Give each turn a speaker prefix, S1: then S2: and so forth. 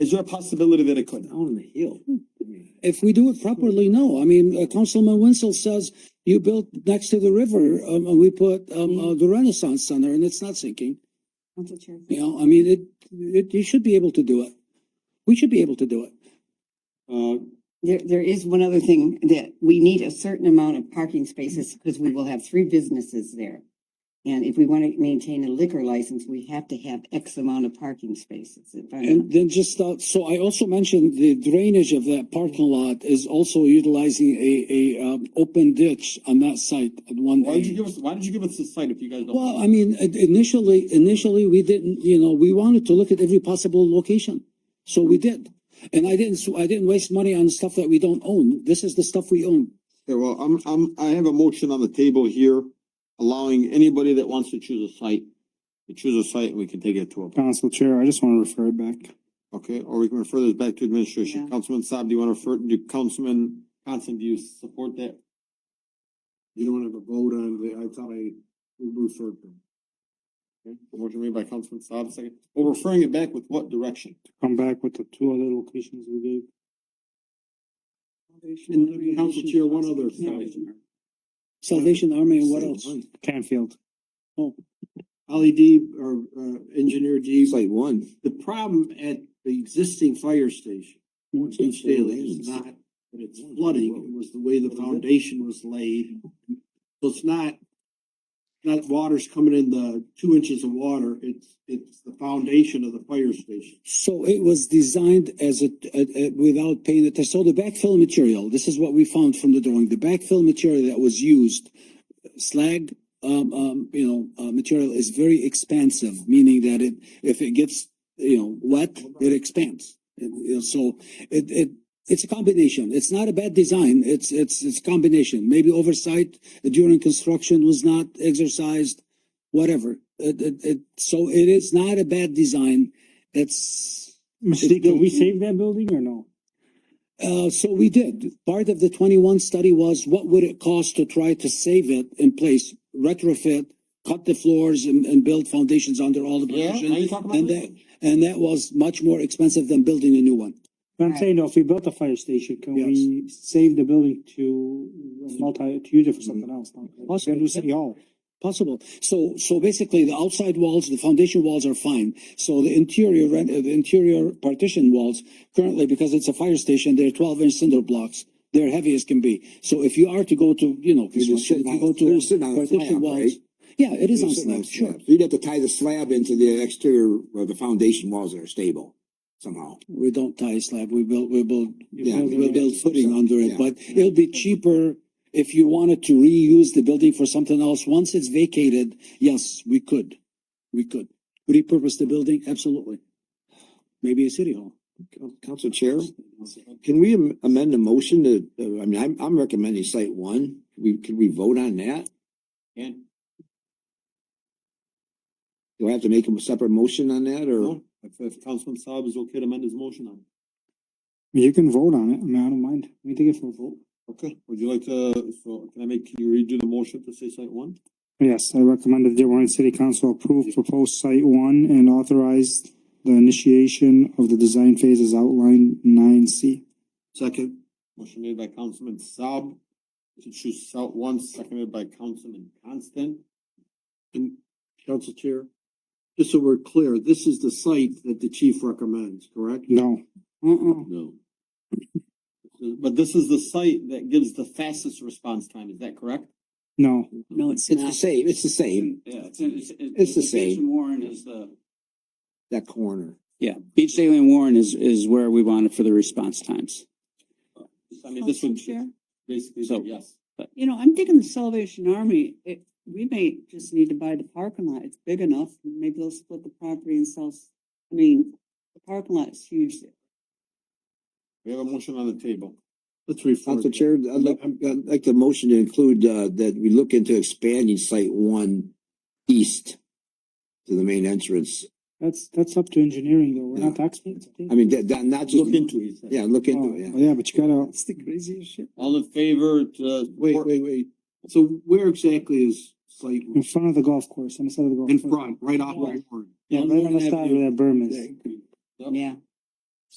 S1: Is there a possibility that it could?
S2: Down on the hill.
S3: If we do it properly, no. I mean, uh, Councilman Wenzel says you built next to the river, um, and we put, um, uh, the Renaissance Center and it's not sinking.
S4: Council Chair.
S3: You know, I mean, it, it, you should be able to do it. We should be able to do it.
S2: Uh,
S4: There, there is one other thing that we need a certain amount of parking spaces because we will have three businesses there. And if we want to maintain a liquor license, we have to have X amount of parking spaces. if I'm
S3: And
S4: not-
S3: then just, uh, so I also mentioned the drainage of that parking lot is also utilizing a, a, um, open ditch on that site at one.
S2: why did you
S3: end.
S2: give us, why did you give us the site if you guys don't?
S3: Well, I mean, i- initially, initially, we didn't, you know, we wanted to look at every possible location. So we did. And I didn't, I didn't waste money on stuff that we don't own. This is the stuff we own.
S2: Okay, well, I'm, I'm, I have a motion on the table here allowing anybody that wants to choose a site, to choose a site and we can take it to a.
S5: Council Chair, I just want to refer it back.
S2: Okay, or we can refer this back to administration.
S4: Yeah.
S2: Councilman Saab, do you wanna refer, do Councilman Constant, do you support that? You don't wanna have a vote on the, I thought I referred them. Okay, motion made by Councilman Saab, second. Well, referring it back with what direction?
S5: Come back with the two other locations we gave.
S2: And Council Chair, one other side.
S3: Salvation Army and what else?
S5: Canfield.
S6: Ollie D or uh engineer D.
S2: Site one.
S6: The problem at the existing fire station, in Staley, is not that it's flooding, it was the way the foundation was laid. So it's not, not water's coming in the two inches of water, it's, it's the foundation of the fire station.
S3: So it was designed as a, a, a- without paying attention. So the backfill material, this is what we found from the drawing, the backfill material that was used, slag, um, um, you know, uh, material is very expansive, meaning that it, if it gets, you know, wet, it expands. It- you know, so it, it, it's a combination. It's not a bad design. It's, it's, it's a combination. Maybe oversight during construction was not exercised, whatever. It, it, it, so it is not a bad design. It's,
S5: Mistake, did we save that building or no?
S3: uh, so we did. Part of the twenty-one study was what would it cost to try to save it in place, retrofit, cut the floors and, and build foundations under all the
S2: Yeah, now
S3: positions.
S2: you talk about
S3: And
S2: that.
S3: that, and that was much more expensive than building a new one.
S5: I'm saying, though, if we built a fire station, can
S3: Yes.
S5: we save the building to multi, to use it for something else? Like,
S3: Possibly.
S5: Can do city hall?
S3: Possible. So, so basically the outside walls, the foundation walls are fine. So the interior, ren- uh, the interior partition walls, currently, because it's a fire station, they're twelve inch cinder blocks. They're heavy as can be. So if you are to go to, you know, construction, if you go
S7: They're
S3: to
S7: sitting on a
S3: partition
S7: slab, right?
S3: walls. Yeah, it is on
S7: Sitting on
S3: slab, sure.
S7: slab. So You'd have to tie the slab into the exterior, or the foundation walls that are stable somehow.
S3: We don't tie slab, we build, we build,
S5: You
S7: Yeah,
S5: build
S3: we
S5: it.
S3: build footing under it,
S7: Yeah.
S3: but it'll be cheaper if you wanted to reuse the building for something else. Once it's vacated, yes, we could. We could repurpose the building, absolutely. Maybe a city hall.
S7: Council Chair, can we am- amend the motion to, uh, I mean, I'm, I'm recommending site one. We, can we vote on that?
S2: And
S7: Do I have to make a separate motion on that or?
S2: No, if, if Councilman Saab is okay to amend his motion on.
S5: You can vote on it. I mean, I don't mind. We take it for a vote.
S2: Okay. Would you like to, so can I make, can you redo the motion to say site one?
S5: Yes, I recommend that Dearborn City Council approve proposed site one and authorize the initiation of the design phase as outlined nine C.
S6: Second,
S2: Motion made by Councilman Saab to choose site one, seconded by Councilman Constant.
S6: and council chair, just so we're clear, this is the site that the chief recommends, correct?
S5: No,
S4: Uh-uh.
S2: No. But this is the site that gives the fastest response time, is that correct?
S5: no.
S3: No, it's
S7: It's the same, it's the same,
S8: Yeah, it's, it's.
S7: It's the same.
S8: Jason Warren is the.
S7: that corner.
S8: Yeah, Beach Daily and Warren is, is where we want it for the response times.
S2: I mean, this would
S9: Chair?
S2: basically,
S8: So-
S2: yes.
S9: You know, I'm thinking the Salvation Army, it, we may just need to buy the parking lot. It's big enough. Maybe they'll split the property and sell. s- I mean, the parking lot is huge.
S2: We have a motion on the table.
S6: Let's refer.
S7: Council Chair, I'd like, I'd like the motion to include, uh, that we look into expanding site one east to the main entrance.
S5: That's, that's up to engineering though. We're not experts.
S7: I mean, that, that, not just,
S2: Look into it. he said.
S7: yeah, look into
S5: Oh,
S7: it, yeah.
S5: Yeah, but you gotta,
S6: That's the craziest shit.
S2: All in favor to.
S6: Wait, wait, wait. So where exactly is site
S5: in front of the golf course, on the side of the golf.
S6: in
S5: course.
S6: front, right off of Warren?
S5: Yeah, right on the side where that berm is.
S4: Yeah.